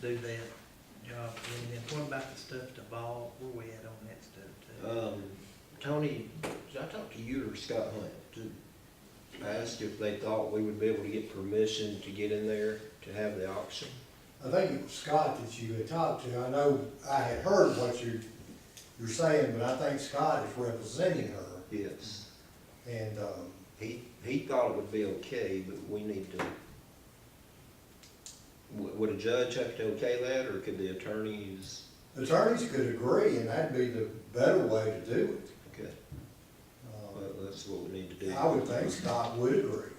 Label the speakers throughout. Speaker 1: do that job. And then what about the stuff to ball, where we at on that stuff too?
Speaker 2: Um, Tony, did I talk to you or Scott Hunt to ask if they thought we would be able to get permission to get in there to have the auction?
Speaker 3: I think it was Scott that you had talked to. I know I had heard what you, you're saying, but I think Scott is representing her.
Speaker 2: Yes.
Speaker 3: And, um,
Speaker 2: He, he thought it would be okay, but we need to. Would, would a judge have to okay that, or could the attorneys,
Speaker 3: attorneys could agree, and that'd be the better way to do it.
Speaker 2: okay, well,
Speaker 3: Um,
Speaker 2: that's what we need to do.
Speaker 3: I would think Scott would agree.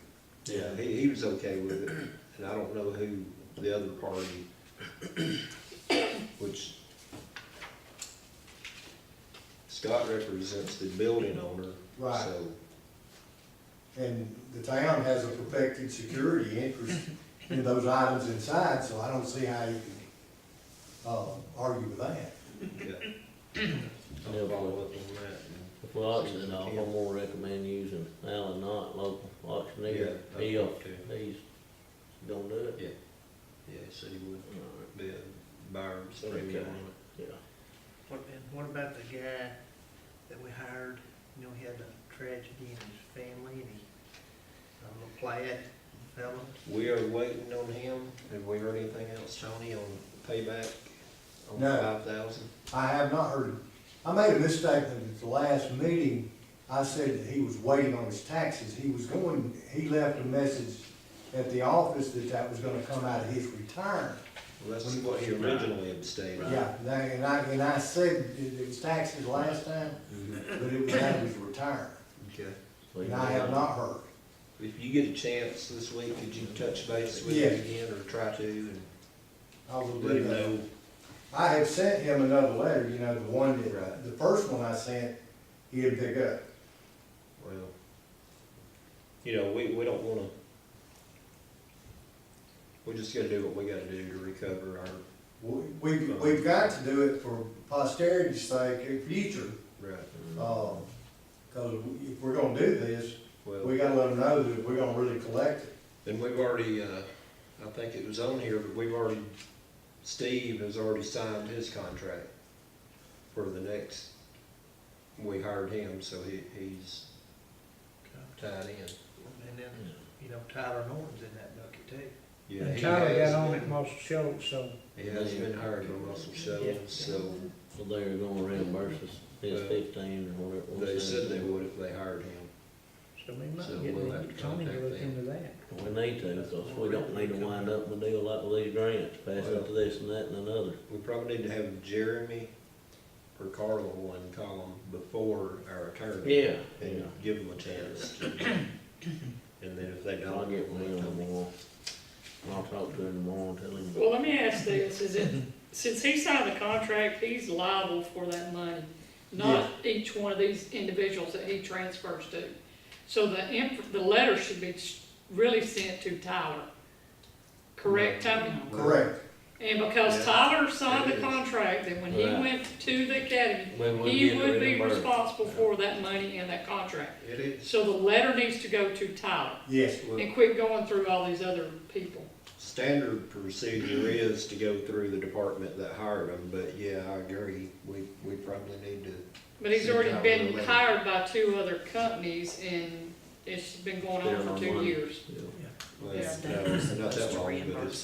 Speaker 2: Yeah, he, he was okay with it, and I don't know who the other party, which Scott represents the building owner,
Speaker 3: Right.
Speaker 2: so,
Speaker 3: And the town has a protected security interest in those items inside, so I don't see how you can, um, argue with that.
Speaker 2: yeah.
Speaker 4: Yeah.
Speaker 2: I'll follow up on that.
Speaker 4: If we auction it off, I'm gonna recommend using Allen Knott, local auctioneer.
Speaker 2: Yeah, that's
Speaker 4: He'll,
Speaker 2: what I'm
Speaker 4: he's gonna do it.
Speaker 2: Yeah. Yeah, so he would
Speaker 4: Alright,
Speaker 2: be a buyer's
Speaker 4: Okay.
Speaker 2: premium on it.
Speaker 4: Yeah.
Speaker 1: What, and what about the guy that we hired, you know, he had a tragedy in his family and he, um, a plaid fellow?
Speaker 2: We are waiting on him. Have we heard anything else, Tony, on payback on
Speaker 3: No.
Speaker 2: five thousand?
Speaker 3: I have not heard, I made a mistake at the last meeting, I said that he was waiting on his taxes, he was going, he left a message at the office that that was gonna come out of his retirement.
Speaker 2: Well, that's what he originally abstained.
Speaker 3: Yeah, and I- and I, and I said it it was taxes last time,
Speaker 2: Mhm.
Speaker 3: but it was out of his retirement,
Speaker 2: Okay.
Speaker 3: and I have not heard.
Speaker 2: If you get a chance this week, could you touch base with
Speaker 3: Yeah.
Speaker 2: him again or try to and
Speaker 3: I will
Speaker 2: let
Speaker 3: do
Speaker 2: him
Speaker 3: that.
Speaker 2: know?
Speaker 3: I had sent him another letter, you know, the one that, the first one I sent, he didn't pick up.
Speaker 2: Well, you know, we, we don't wanna, we just gotta do what we gotta do to recover our,
Speaker 3: We, we've, we've got to do it for posterity's sake, in future,
Speaker 2: right,
Speaker 3: Um, cause if we're gonna do this, we
Speaker 2: well,
Speaker 3: gotta let them know that we're gonna really collect it.
Speaker 2: and we've already, uh, I think it was on here, but we've already, Steve has already signed his contract for the next, we hired him, so he, he's tied in.
Speaker 1: And then, you know, Tyler Norton's in that bucket too.
Speaker 2: Yeah,
Speaker 5: And
Speaker 2: he
Speaker 5: Tyler
Speaker 2: has
Speaker 5: got on
Speaker 2: been-
Speaker 5: at Marshall Schultz, so
Speaker 2: He has been hired by Russell Shelley, so
Speaker 4: So they're gonna reimburse us his
Speaker 2: Well,
Speaker 4: fifteen or whatever.
Speaker 2: they said they would if they hired him.
Speaker 5: so we
Speaker 2: So
Speaker 5: might get
Speaker 2: we'll have to
Speaker 5: the- Tony to
Speaker 2: contact
Speaker 5: look
Speaker 2: them.
Speaker 5: into that.
Speaker 4: We need to, because we don't need to wind up with a deal like with these grants, pass it to this and that and another.
Speaker 2: We probably need to have Jeremy or Carla one call him before our attorney.
Speaker 4: Yeah, yeah.
Speaker 2: And give them a chance. to- And then if they
Speaker 4: I'll
Speaker 2: don't.
Speaker 4: get with him tomorrow. I'll talk to him tomorrow and tell him.
Speaker 6: Well, let me ask this, is it, since he signed the contract, he's liable for that money, not each one of these individuals that he transfers to. So the inf, the letter should be s- really sent to Tyler, correct, Tony?
Speaker 3: Correct.
Speaker 6: And because
Speaker 2: Yeah.
Speaker 6: Tyler signed
Speaker 2: It
Speaker 6: the
Speaker 2: is.
Speaker 6: contract, then when he
Speaker 4: Right.
Speaker 6: went to the academy,
Speaker 4: When we
Speaker 6: he
Speaker 4: get
Speaker 6: would be
Speaker 4: reimbursed.
Speaker 6: responsible for that money and that contract.
Speaker 2: It is,
Speaker 6: So the letter needs to go to Tyler,
Speaker 3: Yes,
Speaker 2: well,
Speaker 6: and quit going through all these other people.
Speaker 2: standard procedure is to go through the department that hired them, but yeah, I agree. We, we probably need to,
Speaker 6: But he's
Speaker 2: Same
Speaker 6: already
Speaker 2: time with
Speaker 6: been
Speaker 2: the lady.
Speaker 6: hired by two other companies and it's been going
Speaker 4: Been
Speaker 6: on
Speaker 4: on
Speaker 6: for two
Speaker 4: one.
Speaker 6: years.
Speaker 4: Yeah.
Speaker 2: well, no,
Speaker 6: Yeah.
Speaker 7: They're
Speaker 2: not that
Speaker 7: supposed to
Speaker 2: long, but
Speaker 7: reimburse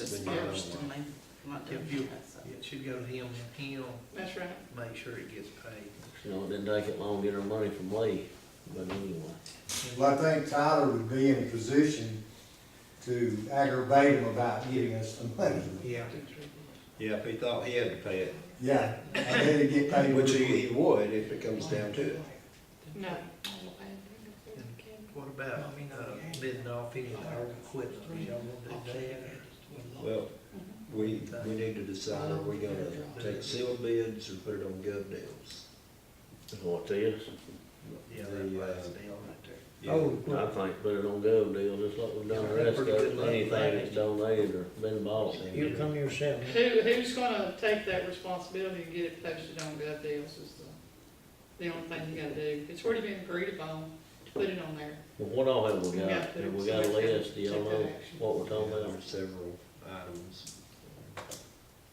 Speaker 2: it's
Speaker 7: us
Speaker 2: been going on. a
Speaker 7: first, and
Speaker 2: while.
Speaker 7: they're not
Speaker 1: If you-
Speaker 7: doing that, so.
Speaker 1: It should go to him and he'll
Speaker 6: That's right.
Speaker 1: make sure it gets paid.
Speaker 4: You know, it didn't take it long to get our money from Lee, but anyway.
Speaker 3: well, I think Tyler would be in a position to aggravate him about giving us the money.
Speaker 1: Yeah.
Speaker 2: Yeah, if he thought he had to pay it,
Speaker 3: Yeah, and then it get paid.
Speaker 2: which
Speaker 3: real
Speaker 2: he,
Speaker 3: quick.
Speaker 2: he would if it comes down to it.
Speaker 6: No.
Speaker 1: What about, uh, bidding off any of our equipment, y'all want to do that?
Speaker 2: Well, we, we need to decide, are we gonna take sealed bids or put it on gov deals?
Speaker 4: That's what it is.
Speaker 1: Yeah,
Speaker 2: The,
Speaker 1: that
Speaker 2: uh,
Speaker 1: last deal right there.
Speaker 5: Oh,
Speaker 4: I
Speaker 5: well,
Speaker 4: think put it on gov deal, just like we've done the rest of it, anything that's donated or been bought.
Speaker 5: you'll come yourself.
Speaker 6: Mm-hmm. Who, who's gonna take that responsibility and get it posted on Gov Deals is the, the only thing you gotta do. It's already been agreed upon to put it on there.
Speaker 4: Well, what all have we
Speaker 6: You
Speaker 4: got?
Speaker 6: gotta put it-
Speaker 4: Have we got a
Speaker 6: somebody gotta
Speaker 4: list? Do y'all
Speaker 6: take that
Speaker 4: know
Speaker 6: action.
Speaker 4: what we're talking
Speaker 2: Yeah, there
Speaker 4: about?
Speaker 2: are several items.